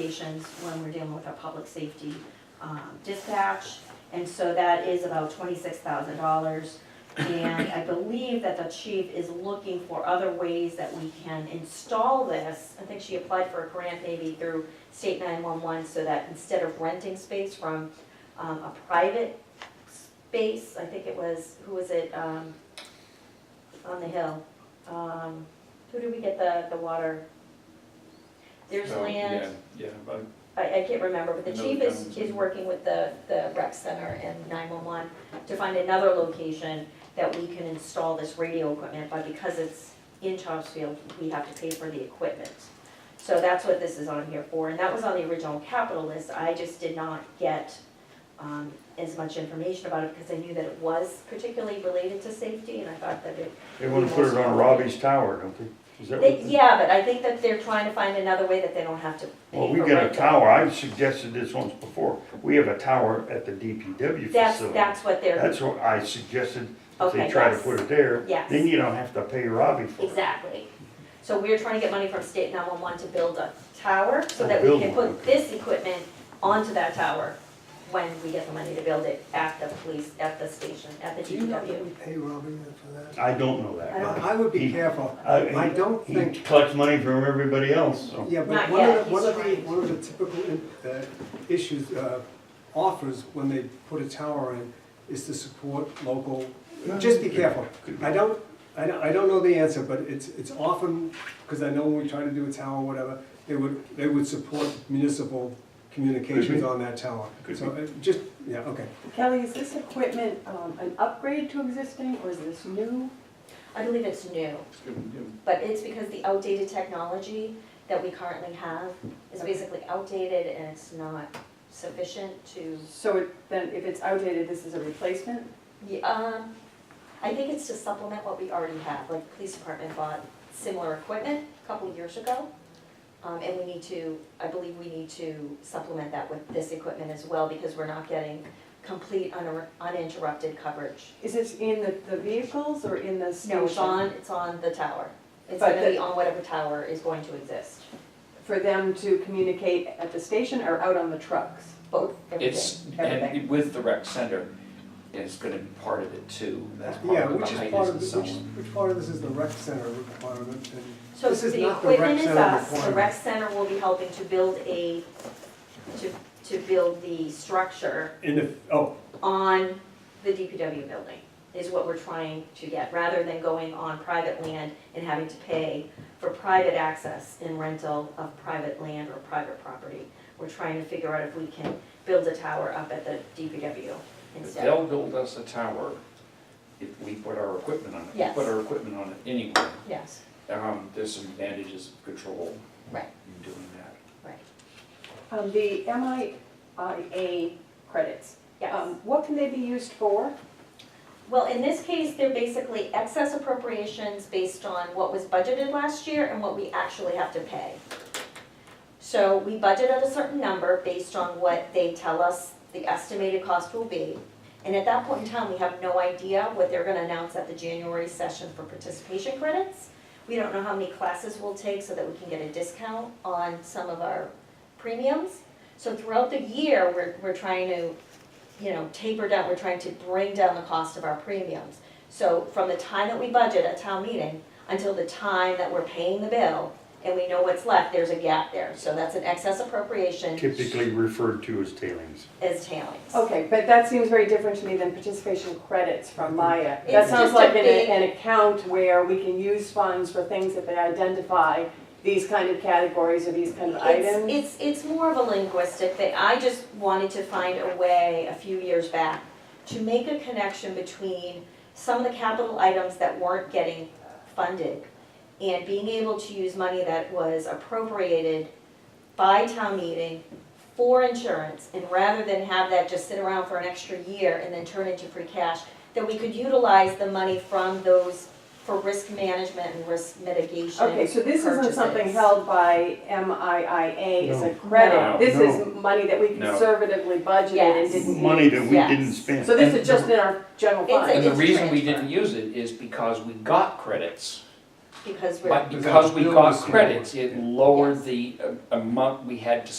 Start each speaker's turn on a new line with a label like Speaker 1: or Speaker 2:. Speaker 1: stations when we're dealing with our public safety um, dispatch. And so that is about twenty-six thousand dollars. And I believe that the chief is looking for other ways that we can install this. I think she applied for a grant maybe through state nine-one-one so that instead of renting space from um, a private space, I think it was, who was it, um, on the hill? Um, Who did we get the, the water? There's
Speaker 2: Oh,
Speaker 1: land.
Speaker 2: Yeah, yeah, but
Speaker 1: I, I can't remember, but the
Speaker 2: No,
Speaker 1: chief is,
Speaker 2: towns.
Speaker 1: is working with the, the rec center and nine-one-one to find another location that we can install this radio equipment, but because it's in Topsfield, we have to pay for the equipment. So that's what this is on here for, and that was on the original capital list, I just did not get, um, as much information about it, because I knew that it was particularly related to safety, and I thought that it
Speaker 3: They want to put it on Robbie's tower, don't they? Is that
Speaker 1: They-
Speaker 3: what? they-
Speaker 1: Yeah, but I think that they're trying to find another way that they don't have to pay
Speaker 3: Well, we
Speaker 1: for
Speaker 3: got a
Speaker 1: rental.
Speaker 3: tower, I've suggested this once before, we have a tower at the DPW
Speaker 1: That's,
Speaker 3: facility.
Speaker 1: that's what they're,
Speaker 3: That's what I suggested, if
Speaker 1: Okay,
Speaker 3: they try to
Speaker 1: yes.
Speaker 3: put it there,
Speaker 1: Yes.
Speaker 3: then you don't have to pay Robbie for it.
Speaker 1: exactly. So we're trying to get money from state nine-one-one to build a tower, so
Speaker 3: Oh,
Speaker 1: that we
Speaker 3: build
Speaker 1: can
Speaker 3: one,
Speaker 1: put
Speaker 3: okay.
Speaker 1: this equipment onto that tower when we get the money to build it at the police, at the station, at the
Speaker 4: Do you know that
Speaker 1: DPW.
Speaker 4: we pay Robin for that?
Speaker 3: I don't know that.
Speaker 1: I don't-
Speaker 4: I would
Speaker 3: He-
Speaker 4: be careful.
Speaker 3: I-
Speaker 4: I don't
Speaker 3: he- He
Speaker 4: think,
Speaker 3: collects money from everybody else, so.
Speaker 4: yeah,
Speaker 1: Not
Speaker 4: but one of
Speaker 1: yet,
Speaker 4: the, one
Speaker 1: he's
Speaker 4: of the,
Speaker 1: right.
Speaker 4: one of the typical in- uh, issues, uh, offers when they put a tower in is to support local, just be careful.
Speaker 3: Could be.
Speaker 4: I don't, I don't, I don't know the answer, but it's, it's often, because I know when we try to do a tower or whatever, they would, they would support municipal communications on that tower.
Speaker 3: Could
Speaker 4: So uh, just, yeah, okay.
Speaker 5: Kelly, is this equipment um, an upgrade to existing or is this new?
Speaker 1: I believe it's new,
Speaker 2: it's good, you know,
Speaker 1: but it's because the outdated technology that we currently have is basically outdated and it's not sufficient to,
Speaker 5: So it- then if it's outdated, this is a replacement?
Speaker 1: Yeah, um, I think it's to supplement what we already have, like the police department bought similar equipment a couple of years ago. Um, and we need to, I believe we need to supplement that with this equipment as well, because we're not getting complete uninter- uninterrupted coverage.
Speaker 5: Is this in the, the vehicles or in the station?
Speaker 1: No, it's on, it's on the tower. It's
Speaker 5: But
Speaker 1: gonna be
Speaker 5: the-
Speaker 1: on whatever tower is going to exist,
Speaker 5: For them to communicate at the station or out on the trucks?
Speaker 1: both, everything.
Speaker 2: It's,
Speaker 5: everything.
Speaker 2: and with the rec center, it's gonna be part of it too, that's part
Speaker 4: Yeah,
Speaker 2: of
Speaker 4: which
Speaker 2: the
Speaker 4: is
Speaker 2: height
Speaker 4: part
Speaker 2: is
Speaker 4: of,
Speaker 2: and
Speaker 4: this-
Speaker 2: so
Speaker 4: which,
Speaker 2: on.
Speaker 4: which part of this is the rec center requirement and
Speaker 1: So
Speaker 4: This is
Speaker 1: the
Speaker 4: not the rec
Speaker 1: equipment is
Speaker 4: center
Speaker 1: us, the rec
Speaker 4: requirement.
Speaker 1: center will be helping to build a, to, to build the structure
Speaker 4: In the, oh,
Speaker 1: on the DPW building, is what we're trying to get, rather than going on private land and having to pay for private access and rental of private land or private property. We're trying to figure out if we can build a tower up at the DPW
Speaker 2: If
Speaker 1: instead.
Speaker 2: They'll build us a tower if we put our equipment on it, we
Speaker 1: Yes.
Speaker 2: put our equipment on it anyway.
Speaker 1: Yes,
Speaker 2: Um, there's some advantages of control
Speaker 1: right,
Speaker 2: in doing that.
Speaker 1: right,
Speaker 5: Um, The MIA credits,
Speaker 1: yes.
Speaker 5: um, what can they be used for?
Speaker 1: Well, in this case, they're basically excess appropriations based on what was budgeted last year and what we actually have to pay. So we budget at a certain number based on what they tell us the estimated cost will be. And at that point in time, we have no idea what they're gonna announce at the January session for participation credits. We don't know how many classes we'll take so that we can get a discount on some of our premiums. So throughout the year, we're, we're trying to you know, taper down, we're trying to bring down the cost of our premiums. So from the time that we budget at town meeting until the time that we're paying the bill and we know what's left, there's a gap there. So that's an excess appropriation
Speaker 3: Typically referred to as tailings.
Speaker 1: as tailings.
Speaker 5: Okay, but that seems very different to me than participation credits from Maya. That
Speaker 1: It's just
Speaker 5: sounds
Speaker 1: a
Speaker 5: like an,
Speaker 1: big-
Speaker 5: an account where we can use funds for things that they identify, these kind of categories or these kind of items.
Speaker 1: It's, it's, it's more of a linguistic thing. I just wanted to find a way a few years back to make a connection between some of the capital items that weren't getting funded and being able to use money that was appropriated by town meeting for insurance, and rather than have that just sit around for an extra year and then turn into free cash, that we could utilize the money from those for risk management and risk mitigation.
Speaker 5: Okay, so this isn't something
Speaker 1: purchases.
Speaker 5: held by MIA as a
Speaker 3: No.
Speaker 2: No.
Speaker 5: credit. This
Speaker 3: No.
Speaker 5: is money that we
Speaker 2: No.
Speaker 5: conservatively budgeted and
Speaker 1: Yes.
Speaker 5: didn't use.
Speaker 3: Money that we
Speaker 1: Yes.
Speaker 3: didn't spend.
Speaker 5: So this
Speaker 2: And
Speaker 5: is just in our general
Speaker 1: It's a-
Speaker 2: And
Speaker 5: fund?
Speaker 2: the
Speaker 1: It's
Speaker 2: reason we
Speaker 1: transfer.
Speaker 2: didn't use it is because we got credits.
Speaker 1: Because we're.
Speaker 2: But
Speaker 4: Because
Speaker 2: because we
Speaker 4: that
Speaker 2: got
Speaker 4: was-
Speaker 2: credits, it lowered
Speaker 1: Yes.
Speaker 2: the uh, amount we had to